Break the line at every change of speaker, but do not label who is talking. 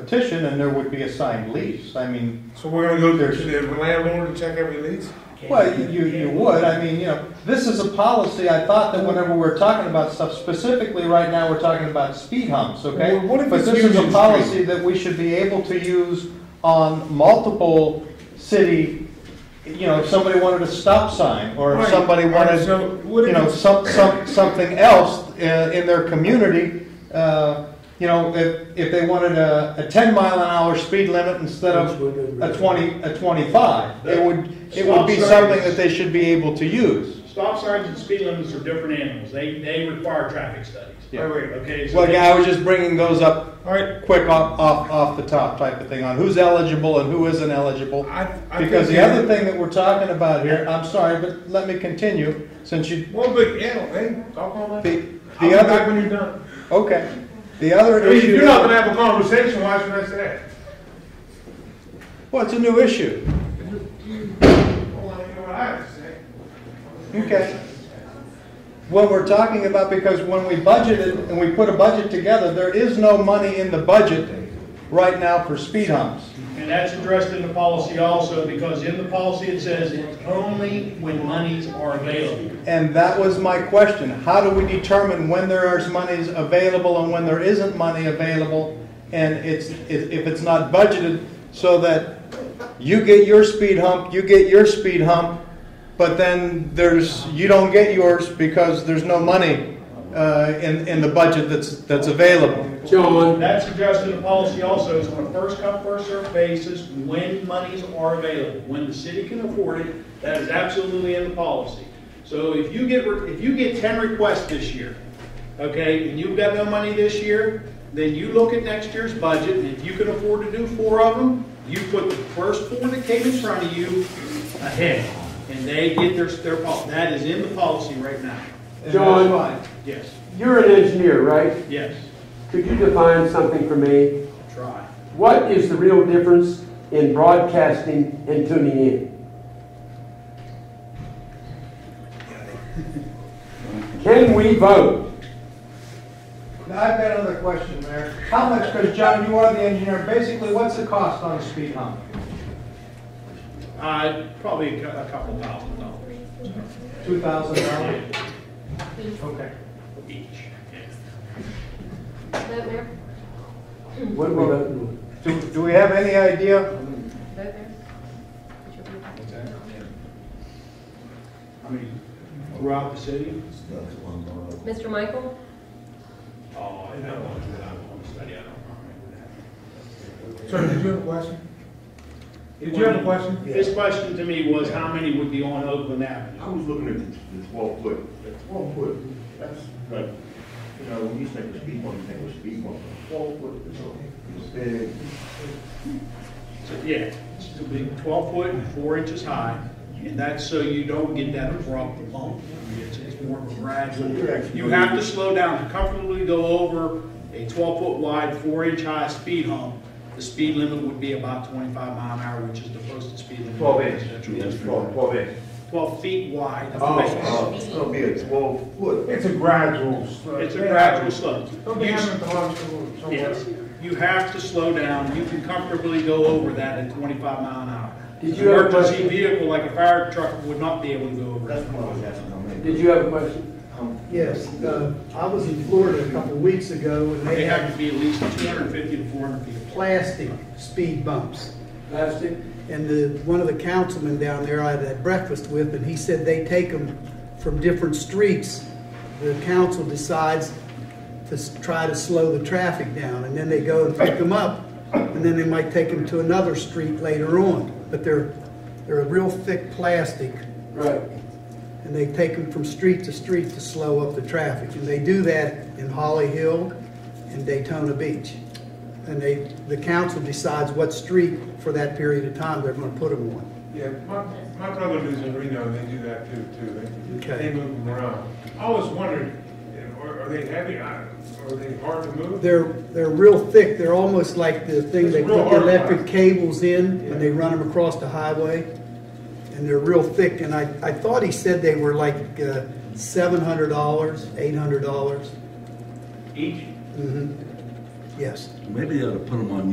petition and there would be a signed lease. I mean,
So we're gonna go to the landlord and check every lease?
well, you, you would, I mean, you know, this is a policy, I thought that whenever we're talking about stuff, specifically right now, we're talking about speed humps, okay?
Well, what if
But
it's
this is
Union
a
Street?
policy that we should be able to use on multiple city, you know, if somebody wanted a stop sign, or if
Right.
somebody
All right,
wanted,
so what
you
if
know,
it's-
some, some, something else uh, in their community, uh, you know, if, if they wanted a, a ten mile an hour speed limit instead of a 20, a 25. It would, it would be something that they should be able to use.
Stop signs and speed limits are different animals. They, they require traffic studies.
Yeah.
Wait, wait,
Okay, so
Well,
they-
yeah, I was just bringing those up
All right,
quick off, off, off the top type of thing on who's eligible and who isn't eligible.
I, I think.
Because the
that-
other thing that we're talking about here, I'm sorry, but let me continue, since you,
Well, but, yeah, hey, talk on that.
the,
I'll be
the
back
other,
when you're done.
okay. The
I
other
mean, if
issue,
you're not gonna have a conversation, why should I say that?
well, it's a new issue.
Well, I know what I have to say.
Okay. What we're talking about, because when we budgeted and we put a budget together, there is no money in the budget right now for speed humps.
and that's addressed in the policy also, because in the policy it says it's only when monies are available.
And that was my question. How do we determine when there is monies available and when there isn't money available? And it's, if if it's not budgeted, so that you get your speed hump, you get your speed hump, but then there's, you don't get yours because there's no money uh, in, in the budget that's, that's available.
John,
That's addressed in the policy also, is on a first come, first served basis, when monies are available, when the city can afford it, that is absolutely in the policy. So if you get, if you get ten requests this year, okay, and you've got no money this year, then you look at next year's budget, and if you can afford to do four of them, you put the first four that came in front of you ahead, and they get their, their, pol- that is in the policy right now.
And that's
John.
why.
Yes,
you're an engineer, right?
yes,
Could you define something for me?
try.
What is the real difference in broadcasting and tuning in? Can we vote?
Now, I've got another question, Mayor. How much, because John, you are the engineer, basically, what's the cost on a speed hump?
Uh, probably a cou- a couple thousand dollars.
Two thousand dollars? Okay.
each.
Vote there,
What are we voting
Do, do we have any idea?
vote there. Put your vote there.
I mean, throughout the city?
Mr. Michael,
Oh, I know, I want to study, I don't remember
Sir, did you have a question? Did
that.
you have a question?
His question to me was, how many would be on Oakland Avenue?
I was looking at the- the twelve foot, that twelve foot, that's like, you know, when you think of speed bump, you think of speed bump. Twelve foot is a, is big.
So, yeah, it'll be twelve foot and four inches high, and that's so you don't get that abrupt bump. It's, it's more of a gradual, you have to slow down to comfortably go over a twelve foot wide, four inch high speed hump. The speed limit would be about twenty-five mile an hour, which is the posted speed limit.
Yes, Twelve, twelve inch.
Twelve feet wide. of
Oh,
base.
oh, it's gonna be a twelve foot.
It's a gradual. slope.
It's a
oh.
gradual slope.
Don't be having a conversation. so-
Yes, you have to slow down, you can comfortably go over that at twenty-five mile an hour.
Did you have a
Emergency
question?
vehicle like a fire truck would not be able to go over
That's
that.
what I was asking, I
on?
mean.
Did you have a question?
Um,
Yes, uh, I was in Florida a couple of weeks ago, and
They
they
have to
had
be at least two hundred and fifty to four hundred feet.
plastic speed bumps.
Plastic?
And the, one of the councilmen down there I had breakfast with, and he said they take them from different streets. The council decides to s- try to slow the traffic down, and then they go and pick them up, and then they might take them to another street later on. But they're, they're a real thick plastic,
Right.
and they take them from street to street to slow up the traffic. And they do that in Holly Hill and Daytona Beach. And they, the council decides what street for that period of time they're gonna put them on.
Yeah, my, my brother lives in Reno, and they do that too, too. They,
Okay.
they move them around. I always wondered, eh, are, are they heavy, I- are they hard to move?
They're, they're real thick, they're almost like the thing they put the electric cables in and they run them across the highway. And they're real thick, and I, I thought he said they were like uh, seven hundred dollars, eight hundred dollars. Mm-hmm.
Each
Yes.
Maybe they ought to put them on